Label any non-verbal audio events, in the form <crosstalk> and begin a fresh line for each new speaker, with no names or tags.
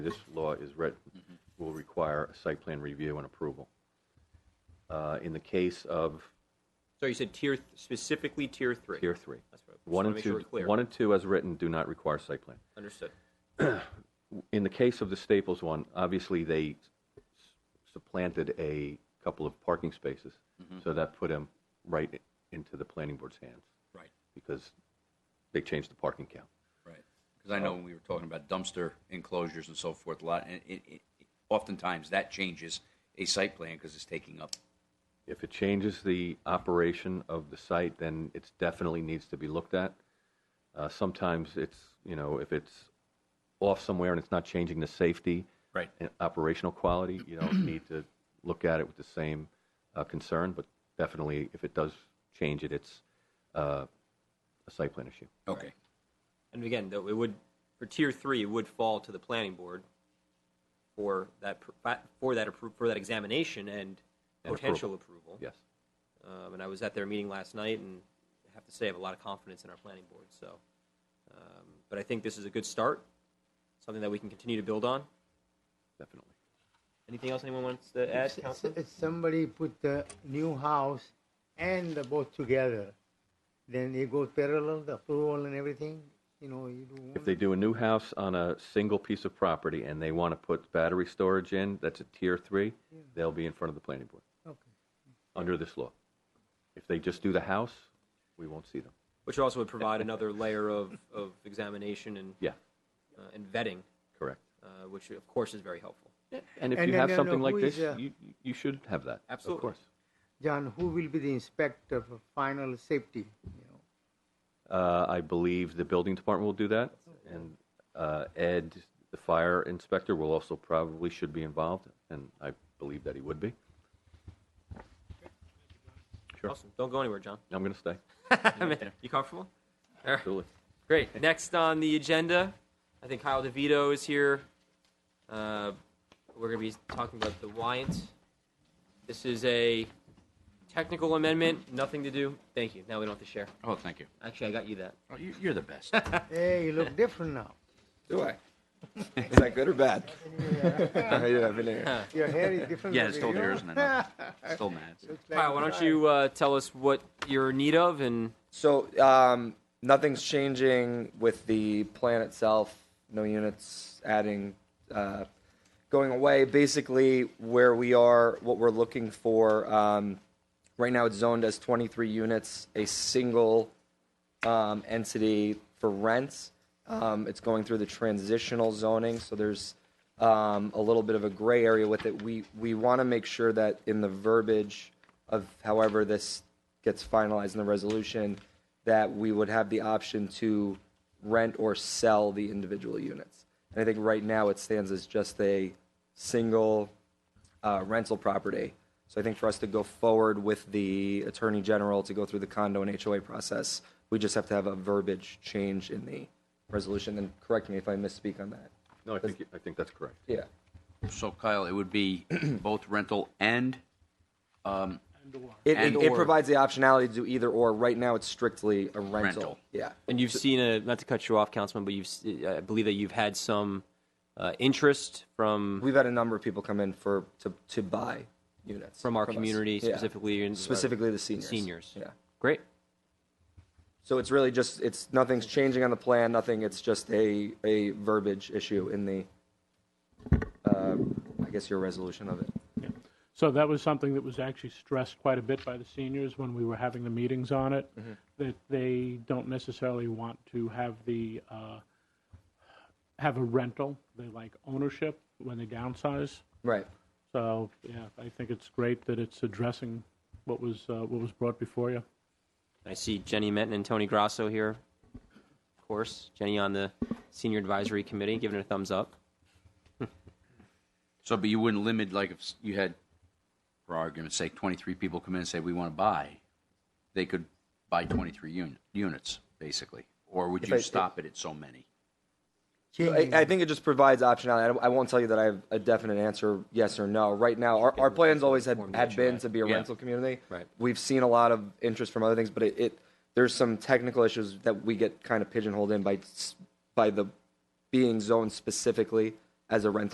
this law is written,
Mm-hmm.
will require a site plan review and approval. Uh, In the case of
So you said tier, specifically tier three?
Tier 3,
That's what I just
one
wanna
and
make sure
two,
we're clear.
one and two as written do not require site plan.
Understood.
In the case of the Staples one, obviously, they supplanted a couple of parking spaces,
Mm-hmm.
so that put them right into the planning board's hands,
Right,
because they changed the parking count.
right. Because I know when we were talking about dumpster enclosures and so forth, a lot, and it, it, oftentimes that changes a site plan because it's taking up.
If it changes the operation of the site, then it definitely needs to be looked at. Uh, Sometimes it's, you know, if it's off somewhere and it's not changing the safety
Right.
and operational quality, you don't need to look at it with the same uh, concern, but definitely if it does change it, it's uh, a site plan issue.
Okay.
And again, though, it would, for tier three, it would fall to the planning board for that, pr- fa- for that, appro- for that examination and
And approval.
potential approval.
Yes.
Um, and I was at their meeting last night, and I have to say I have a lot of confidence in our planning board. So, um, but I think this is a good start, something that we can continue to build on.
Definitely.
Anything else anyone wants to add,
S- s-
Councilman?
if somebody put the new house and the boat together, then it goes parallel, the approval and everything, you know, you do.
If they do a new house on a single piece of property and they want to put battery storage in, that's a tier three, they'll be in front of the planning board.
Okay.
under this law. If they just do the house, we won't see them.
Which also would provide another layer of, of examination and,
Yeah,
uh, and vetting,
correct.
uh, which of course is very helpful.
And if
And
you
then
have
they'll
something
know
like
who is,
this,
uh,
you, you should have that.
Absolutely.
Of course.
John, who will be the inspector for final safety, you know?
Uh, I believe the building department will do that, and uh, Ed, the fire inspector, will also probably should be involved, and I believe that he would be. Sure.
Awesome. Don't go anywhere, <laughs> John.
I'm going to stay.
<laughs> you comfortable? All right.
Absolutely.
Great. Next on the agenda, I think Kyle DeVito is here. Uh, we're going to be talking about the Wyant. This is a technical amendment, nothing to do. Thank you. Now we don't have to share.
Oh, thank you.
Actually, I got you that.
Oh, you, you're the <laughs> best.
Hey, you look different now.
Do I? <laughs> Is that good or bad? How you doing? Happy New Year.
Your hair is different.
yeah,
than
it's still
you.
there, isn't it? No, <laughs> it's still mad.
Looks like
Kyle, why don't you uh, tell us what you're in need of and
So um, nothing's changing with the plan itself. No units adding, uh, going away. Basically, where we are, what we're looking for. Um, right now, it's zoned as 23 units, a single um, entity for rents. Um, it's going through the transitional zoning, so there's um, a little bit of a gray area with it. We we want to make sure that in the verbiage of however this gets finalized in the resolution, that we would have the option to rent or sell the individual units. And I think right now it stands as just a single uh, rental property. So I think for us to go forward with the Attorney General to go through the condo and HOA process, we just have to have a verbiage change in the resolution. And correct me if I misspeak on that.
No, I think, you- I think that's correct.
Yeah.
So Kyle, it would be <clears throat> both rental and, um,
It, it,
And
it
or-
provides the optionality to do either or. Right now, it's strictly a rental.
Rental.
Yeah.
and you've seen a not to cut you off, Councilman, but you've s- I believe that you've had some uh, interest from
We've had a number of people come in for to, to buy units
from our
us.
community
Yeah.
specifically and
specifically the seniors.
Seniors.
Yeah.
Great.
So it's really just it's nothing's changing on the plan. Nothing. It's just a a verbiage issue in the, uh, I guess your resolution of it.
So that was something that was actually stressed quite a bit by the seniors when we were having the meetings on it, that they don't necessarily want to have the, uh, have a rental. They like ownership when they downsize.
Right.
So, yeah, I think it's great that it's addressing what was, uh, what was brought before you.
I see Jenny Minton and Tony Grasso here, of course. Jenny on the Senior Advisory Committee, giving it a thumbs up.
so, but you wouldn't limit, like if s- you had, for argument's sake, 23 people come in and say, we want to buy, they could buy 23 uni- units, basically. Or would
If
you
I-
stop it at so many?
I, I think it just provides optionality. I, don't- I won't tell you that I have a definite answer, yes or no. Right now, our, our plans always had, had been to be a
Yeah.
rental community.
Right.
We've seen a lot of interest from other things, but it, it there's some technical issues that we get kind of pigeonholed in by s- by the being zoned specifically as a rental